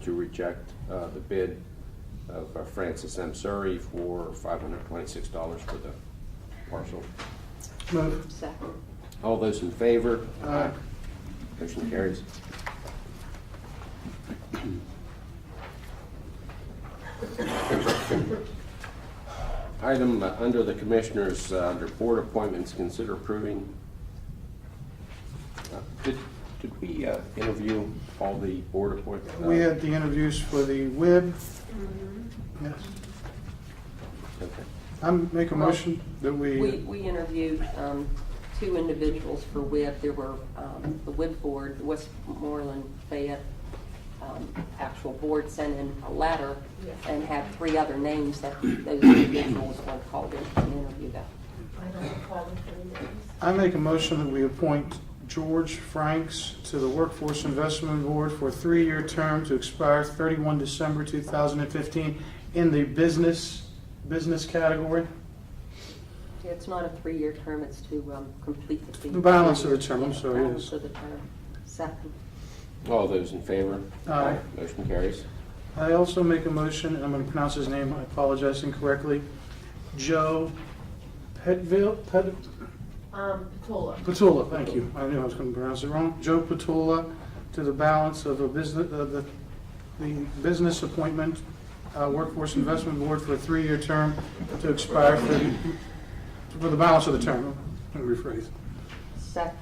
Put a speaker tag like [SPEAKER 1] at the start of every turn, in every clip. [SPEAKER 1] to reject uh, the bid of uh, Francis M. Surrey for $526 for the parcel.
[SPEAKER 2] Move.
[SPEAKER 3] Second.
[SPEAKER 1] All those in favor?
[SPEAKER 2] Aye.
[SPEAKER 1] Motion carries. Item uh, under the Commissioners, uh, under Board Appointments, consider approving. uh, Did did we uh, interview all the board uh, appointments?
[SPEAKER 2] We had the interviews for the WIB. Yes. I'm make a motion that
[SPEAKER 4] We,
[SPEAKER 2] we,
[SPEAKER 4] we interviewed um, two individuals for WIB. There were um, the WIB board, the Westmoreland Fayette um, actual board sent in a letter and had three other names that those individuals were called in to interview them.
[SPEAKER 3] I don't recall the three names.
[SPEAKER 2] I make a motion that we appoint George Franks to the Workforce Investment Board for a three-year term to expire 31 December 2015 in the business, business category.
[SPEAKER 4] It's not a three-year term, it's to um, complete the.
[SPEAKER 2] The balance of the term, I'm
[SPEAKER 4] Yeah,
[SPEAKER 2] sorry,
[SPEAKER 4] balance
[SPEAKER 2] yes.
[SPEAKER 4] of the term. Second.
[SPEAKER 1] All those in favor?
[SPEAKER 2] Aye.
[SPEAKER 1] Motion carries.
[SPEAKER 2] I also make a motion, and I'm going to pronounce his name, I apologize incorrectly, Joe Petville, Pet-
[SPEAKER 3] Um, Patola.
[SPEAKER 2] Patula, thank you. I knew I was going to pronounce it wrong. Joe Patula to the balance of a business, uh, the, the business appointment, uh, Workforce Investment Board for a three-year term to expire for, the- for the balance of the term. Let me rephrase.
[SPEAKER 4] Second.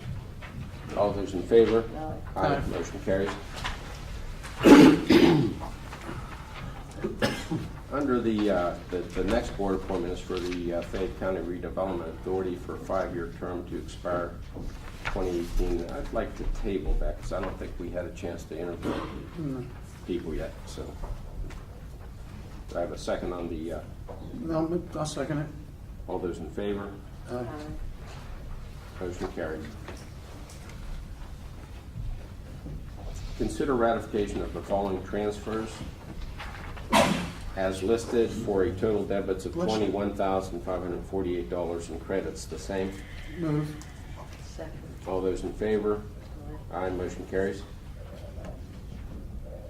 [SPEAKER 1] All those in favor?
[SPEAKER 4] No.
[SPEAKER 2] Aye.
[SPEAKER 1] Motion carries. Under the, uh, the, the next board appointment is for the uh, Fayette County Redevelopment Authority for a five-year term to expire 2018. I'd like to table that because I don't think we had a chance to interview
[SPEAKER 2] No.
[SPEAKER 1] people yet, so. Do I have a second on the, uh,
[SPEAKER 2] No, I'll second it.
[SPEAKER 1] all those in favor?
[SPEAKER 2] Uh,
[SPEAKER 4] Aye.
[SPEAKER 1] Motion carried. Consider ratification of the following transfers as listed for a total debits of
[SPEAKER 2] Bless you.
[SPEAKER 1] twenty-one thousand five hundred and forty-eight dollars and credits the same.
[SPEAKER 2] Move.
[SPEAKER 4] Second.
[SPEAKER 1] All those in favor? Aye, motion carries.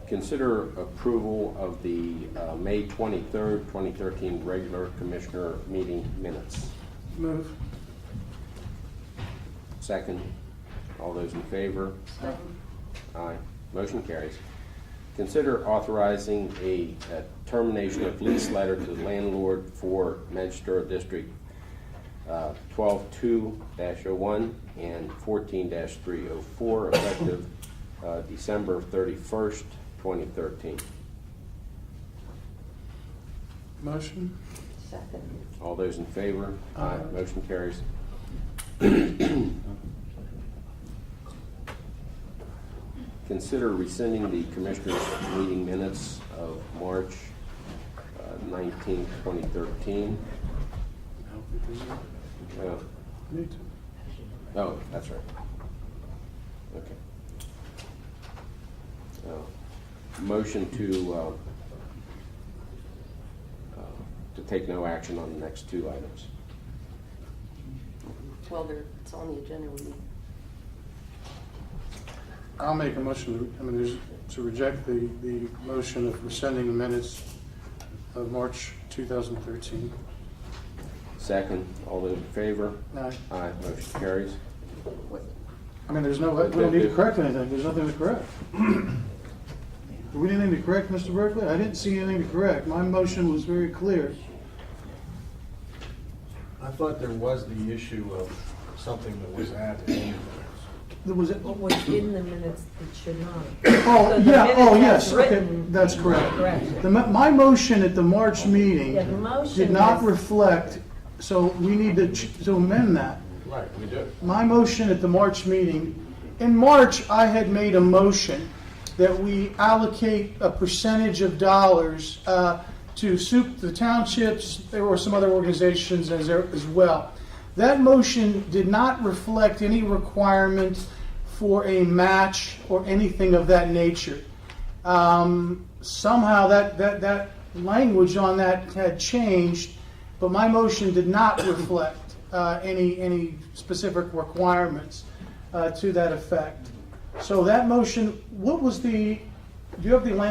[SPEAKER 1] Consider approval of the uh, May twenty-third, twenty thirteen regular commissioner meeting minutes.
[SPEAKER 2] Move.
[SPEAKER 1] Second. All those in favor?
[SPEAKER 4] Second.
[SPEAKER 1] Aye. Motion carries. Consider authorizing a a termination of lease letter to the landlord for Magistrate District uh, 12-2-01 and 14-304, effective uh, December 31st, 2013.
[SPEAKER 2] Motion.
[SPEAKER 4] Second.
[SPEAKER 1] All those in favor?
[SPEAKER 2] Aye.
[SPEAKER 1] Motion carries. Consider rescinding the Commissioners' meeting minutes of March uh, 19, 2013. Uh,
[SPEAKER 2] Me too.
[SPEAKER 1] Oh, that's right. Okay. Uh, Motion to, uh, uh, to take no action on the next two items.
[SPEAKER 4] Well, there, it's on the agenda. We need
[SPEAKER 2] I'll make a motion, to- I mean, there's- to reject the, the motion of rescinding the minutes of March 2013.
[SPEAKER 1] Second, all those in favor?
[SPEAKER 2] Aye.
[SPEAKER 1] Aye, motion carries.
[SPEAKER 4] what-
[SPEAKER 2] I mean, there's no, we don't need to correct anything, there's nothing to correct. Do we need anything to correct, Mr. Berkeley? I didn't see anything to correct, my motion was very clear.
[SPEAKER 5] I thought there was the issue of something that was added.
[SPEAKER 2] There was,
[SPEAKER 6] What was in the minutes that should not.
[SPEAKER 2] oh,
[SPEAKER 6] the
[SPEAKER 2] yeah, oh,
[SPEAKER 6] minutes
[SPEAKER 2] yes,
[SPEAKER 6] as
[SPEAKER 2] okay,
[SPEAKER 6] written
[SPEAKER 2] that's correct.
[SPEAKER 6] are correct.
[SPEAKER 2] The, mo- my motion at the March meeting
[SPEAKER 6] Yeah, the motion
[SPEAKER 2] did not
[SPEAKER 6] was-
[SPEAKER 2] reflect, so we need to ch- to amend that.
[SPEAKER 5] Right, we do.
[SPEAKER 2] my motion at the March meeting, in March, I had made a motion that we allocate a percentage of dollars uh, to soup the townships, there were some other organizations as, there- as well. That motion did not reflect any requirement for a match or anything of that nature. Um, somehow that, that, that language on that had changed, but my motion did not reflect uh, any, any specific requirements uh, to that effect. So that motion, what was the, do you have the language